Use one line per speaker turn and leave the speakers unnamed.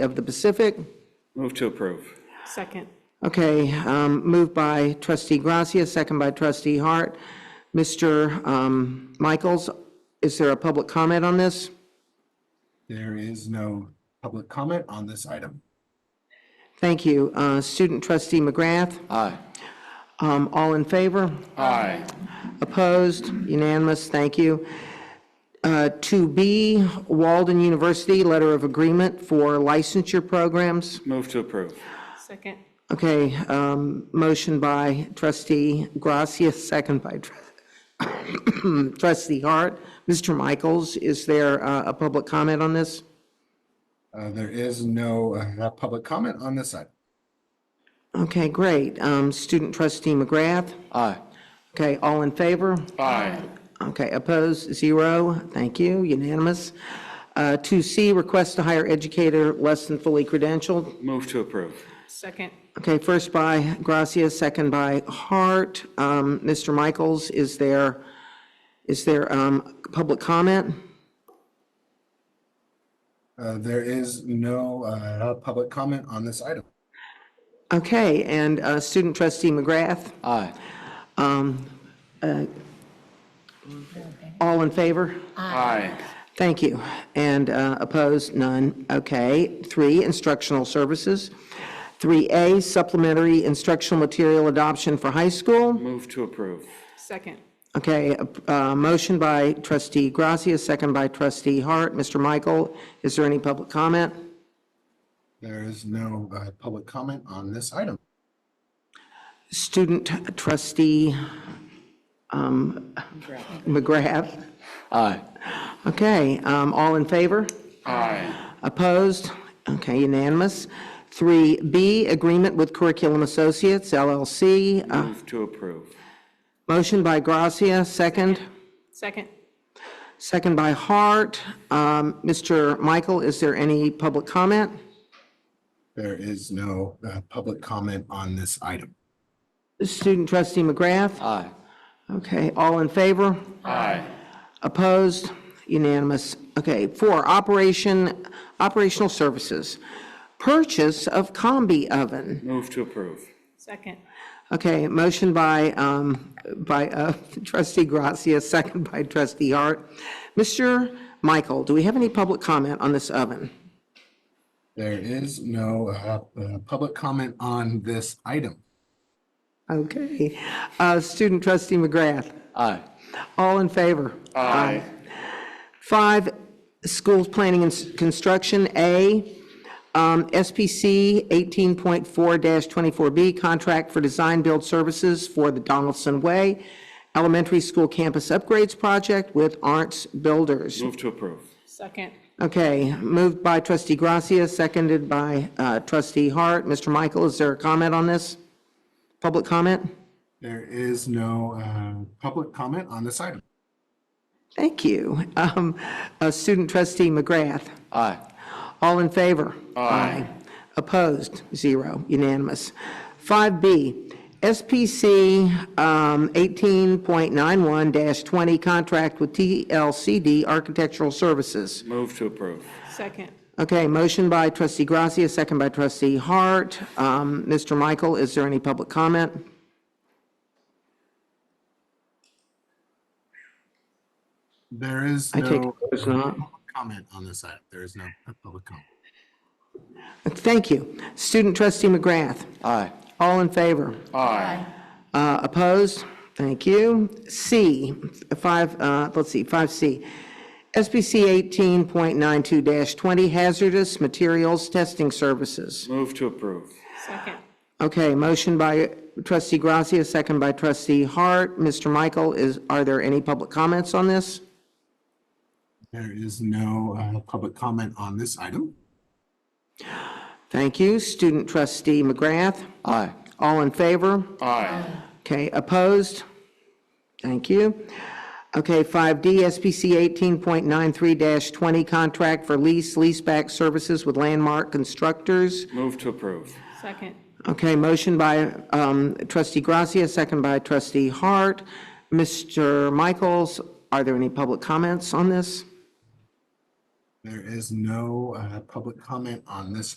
of the Pacific.
Move to approve.
Second.
Okay, um, moved by trustee Gracia, second by trustee Hart. Mr. um, Michaels, is there a public comment on this?
There is no public comment on this item.
Thank you. Uh, Student trustee McGrath,
Aye.
um, all in favor?
Aye.
Opposed? Unanimous, thank you. Uh, 2B, Walden University, Letter of Agreement for Licensure Programs.
Move to approve.
Second.
Okay, um, motion by trustee Gracia, second by tr- trustee Hart. Mr. Michaels, is there uh, a public comment on this?
Uh, There is no uh, public comment on this item.
Okay, great. Um, Student trustee McGrath?
Aye.
Okay, all in favor?
Aye.
Okay, opposed, zero. Thank you, unanimous. Uh, 2C, request to hire educator less than fully credentialed.
Move to approve.
Second.
Okay, first by Gracia, second by Hart. Um, Mr. Michaels, is there, is there um, public comment?
Uh, There is no uh, public comment on this item.
Okay, and uh, student trustee McGrath,
Aye.
all in favor?
Aye.
Thank you. And uh, opposed, none. Okay. Three, instructional services. 3A, supplementary instructional material adoption for high school.
Move to approve.
Second.
Okay, a- a motion by trustee Gracia, second by trustee Hart. Mr. Michael, is there any public comment?
There is no uh, public comment on this item.
Student trustee um, McGrath.
Aye.
Okay, um, all in favor?
Aye.
Opposed? Okay, unanimous. 3B, agreement with Curriculum Associates LLC. Uh,
Move to approve.
Motion by Gracia, second.
Second.
Second by Hart. Um, Mr. Michael, is there any public comment?
There is no uh, public comment on this item.
Student trustee McGrath?
Aye.
Okay, all in favor?
Aye.
Opposed? Unanimous. Okay, four, operation, operational services. Purchase of combi oven.
Move to approve.
Second.
Okay, motion by, um, by uh, trustee Gracia, second by trustee Hart. Mr. Michael, do we have any public comment on this oven?
There is no uh, uh, public comment on this item.
Okay. Uh, Student trustee McGrath,
Aye.
all in favor?
Aye.
Five, schools planning and s- construction, A, um, SPC 18.4-24B, contract for design build services for the Donaldson Way Elementary School Campus Upgrades Project with Arntz Builders.
Move to approve.
Second.
Okay, moved by trustee Gracia, seconded by uh, trustee Hart. Mr. Michael, is there a comment on this? Public comment?
There is no uh, public comment on this item.
Thank you. Um, uh, Student trustee McGrath,
Aye.
all in favor? Aye. Opposed? Zero, unanimous. 5B, SPC um, 18.91-20, contract with TLCD Architectural Services.
Move to approve.
Second.
Okay, motion by trustee Gracia, second by trustee Hart. Um, Mr. Michael, is there any public comment?
There is
I take it
no
there's not.
comment on this item. There is no public comment.
Thank you. Student trustee McGrath,
Aye.
all in favor?
Aye.
Uh, Opposed? Thank you. C, five, uh, let's see, 5C. SBC 18.92-20 hazardous materials testing services.
Move to approve.
Second.
Okay, motion by trustee Gracia, second by trustee Hart. Mr. Michael, is, are there any public comments on this?
There is no uh, public comment on this item.
Thank you. Student trustee McGrath,
Aye.
all in favor?
Aye.
Okay, opposed? Thank you. Okay, 5D, SPC 18.93-20, contract for lease, leaseback services with Landmark Constructors.
Move to approve.
Second.
Okay, motion by um, trustee Gracia, second by trustee Hart. Mr. Michaels, are there any public comments on this?
There is no uh, public comment on this